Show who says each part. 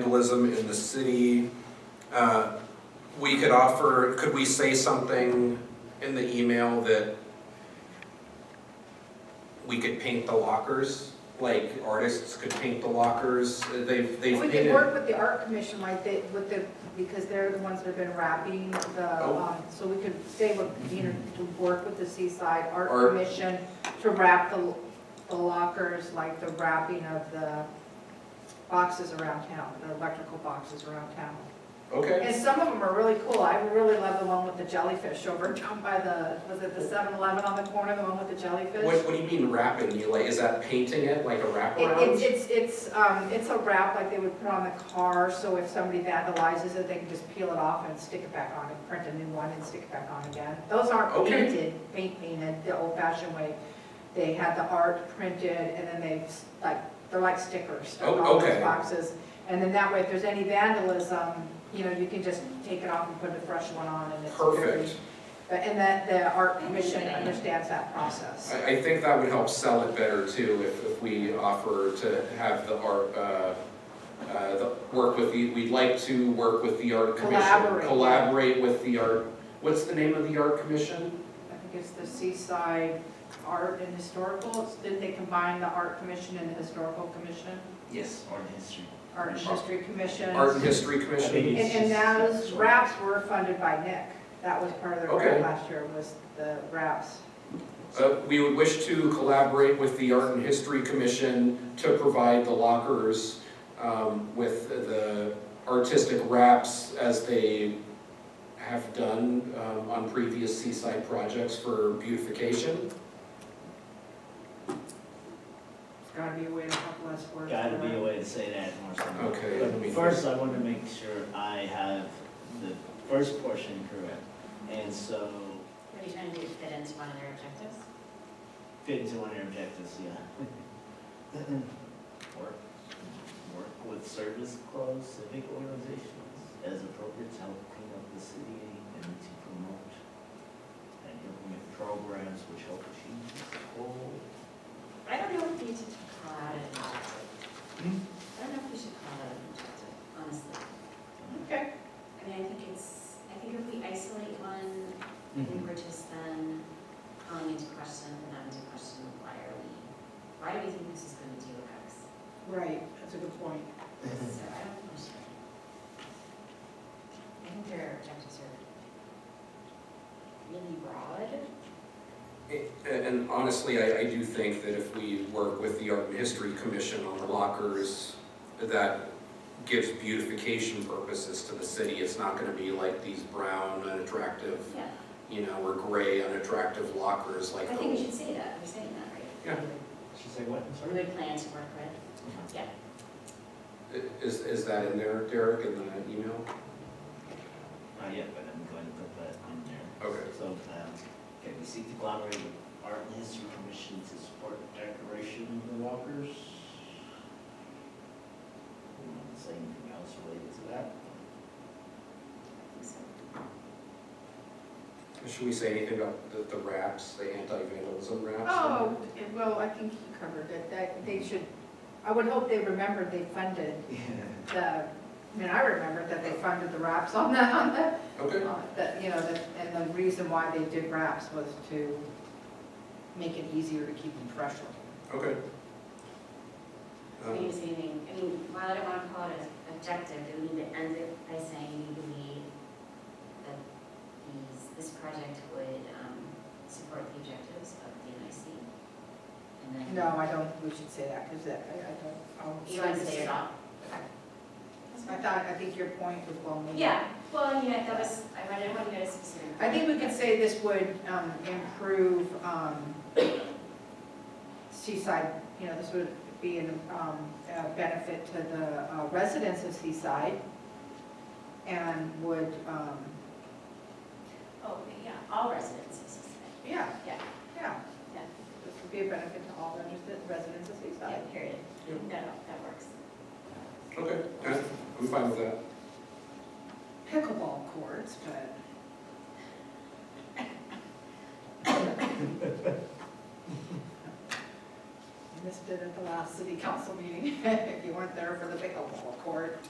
Speaker 1: vandalism in the city, uh, we could offer, could we say something in the email that we could paint the lockers, like artists could paint the lockers, Uh, they've, they've
Speaker 2: We
Speaker 1: painted.
Speaker 2: could work with the art commission like they, with the, because they're the ones that have been wrapping the,
Speaker 1: Oh.
Speaker 2: um, so we could say, with, you know, to work with the Seaside Art
Speaker 1: Art.
Speaker 2: Commission to wrap the, the lockers, like the wrapping of the boxes around town, the electrical boxes around town.
Speaker 1: Okay,
Speaker 2: And some of them are really cool. I really love the one with the jellyfish over down by the, was it the 7-Eleven on the corner, the one with the jellyfish?
Speaker 1: what, what do you mean wrapping, you like, is that painting it like a
Speaker 2: It-
Speaker 1: wraparound?
Speaker 2: It's, it's, it's, um, it's a wrap like they would put on the car, so if somebody vandalizes it, they can just peel it off and stick it back on and print a new one and stick it back on again. Those aren't
Speaker 1: Okay.
Speaker 2: painted, paint painted, the old fashioned way. They had the art printed and then they, s- like, they're like stickers stuck
Speaker 1: Oh,
Speaker 2: on
Speaker 1: okay.
Speaker 2: those boxes. And then that way, if there's any vandalism, you know, you can just take it off and put a fresh one on and it's. very-
Speaker 1: Perfect,
Speaker 2: But, and that, the art commission understands that process.
Speaker 1: I, I think that would help sell it better too, if, if we offer to have the art, uh, uh, the, work with the, we'd like to work with the art commission.
Speaker 2: Collaborate.
Speaker 1: Collaborate with the art, what's the name of the art commission?
Speaker 2: I think it's the Seaside Art and Historical, It's- didn't they combine the Art Commission and the Historical Commission?
Speaker 3: Yes, art and history.
Speaker 2: Art and History Commission?
Speaker 1: Art and History
Speaker 3: I think
Speaker 1: Commission?
Speaker 2: And, and those wraps were funded by Nick, that was part of the
Speaker 1: Okay.
Speaker 2: grant last year, was the wraps.
Speaker 1: Uh, we would wish to collaborate with the Art and History Commission to provide the lockers, um, with the artistic wraps as they have done, um, on previous seaside projects for beautification.
Speaker 2: It's gotta be a way to help less words.
Speaker 3: Gotta be a way to say that more simply.
Speaker 1: Okay,
Speaker 3: But
Speaker 1: let me-
Speaker 3: First, I wanna make sure I have the first portion correct, and so
Speaker 4: What are you trying to do, fit into one of their objectives?
Speaker 3: fit into one of your objectives, yeah. Work, work with service clubs, civic organizations, as appropriate, to help clean up the city and to promote and implement programs which help achieve this goal.
Speaker 4: I don't know if we need to call out an objective. I don't know if we should call out an objective, honestly.
Speaker 2: Okay,
Speaker 4: I mean, I think it's, I think if we isolate one, I
Speaker 3: Mm-hmm.
Speaker 4: think we're just then calling into question, and not into question, why are we, why do we think this is gonna do X?
Speaker 2: right, that's a good point.
Speaker 4: So I don't know. sure. I think their objectives are really broad.
Speaker 1: eh, And honestly, I, I do think that if we work with the Art and History Commission on the lockers, that gives beautification purposes to the city. It's not gonna be like these brown unattractive,
Speaker 4: Yeah.
Speaker 1: you know, or gray unattractive lockers like
Speaker 4: I think we
Speaker 1: those.
Speaker 4: should say that, we're saying that, right?
Speaker 1: Yeah.
Speaker 3: Should say what, I'm
Speaker 4: We
Speaker 3: sorry?
Speaker 4: would plan to work with.
Speaker 1: Is, is that in there, Derek, in the email?
Speaker 3: Not yet, but I'm going to put that in there.
Speaker 1: Okay.
Speaker 3: So, um, okay, we seek to collaborate with Art and History Commission to support decoration of the walkers. Not Saying anything else related to that?
Speaker 4: So,
Speaker 1: Should we say anything about the, the wraps, the anti-vandalism wraps?
Speaker 2: Oh, well, I think he covered it, that, they should, I would hope they remembered they funded
Speaker 3: Yeah.
Speaker 2: the, I mean, I remember that they funded the wraps on the, on the
Speaker 1: Okay,
Speaker 2: Uh, That, you know, that- and the reason why they did wraps was to make it easier to keep them fresh.
Speaker 1: okay.
Speaker 4: I mean,
Speaker 1: Um,
Speaker 4: it's anything, I mean, while I don't want to call it an objective, we need to end it by saying we believe that these, this project would, um, support the objectives of the NIC. And then.
Speaker 2: No, I don't, think we should say that, because that, I I don't. I'll-
Speaker 4: Mm-hmm. You want to say it all? That's
Speaker 2: I
Speaker 4: fine.
Speaker 2: thought, I think your point was well made.
Speaker 4: Yeah, well, I mean, I- that was, I wanted to go to specific.
Speaker 2: I think we can say this would um, improve um, Seaside, you know, this would be an, um, a benefit to the uh, residents of Seaside and would, um,
Speaker 4: Oh, yeah, all residents of Seaside,
Speaker 2: yeah,
Speaker 4: yeah,
Speaker 2: yeah.
Speaker 4: Yeah.
Speaker 2: This would be a benefit to all residents- residents of Seaside.
Speaker 4: yeah, period.
Speaker 1: Yeah.
Speaker 4: No, no, that works.
Speaker 1: Um, Okay, I- I'm fine with that.
Speaker 2: pickleball courts, but. Missed it at the last city council meeting, if you weren't there for the pickleball court.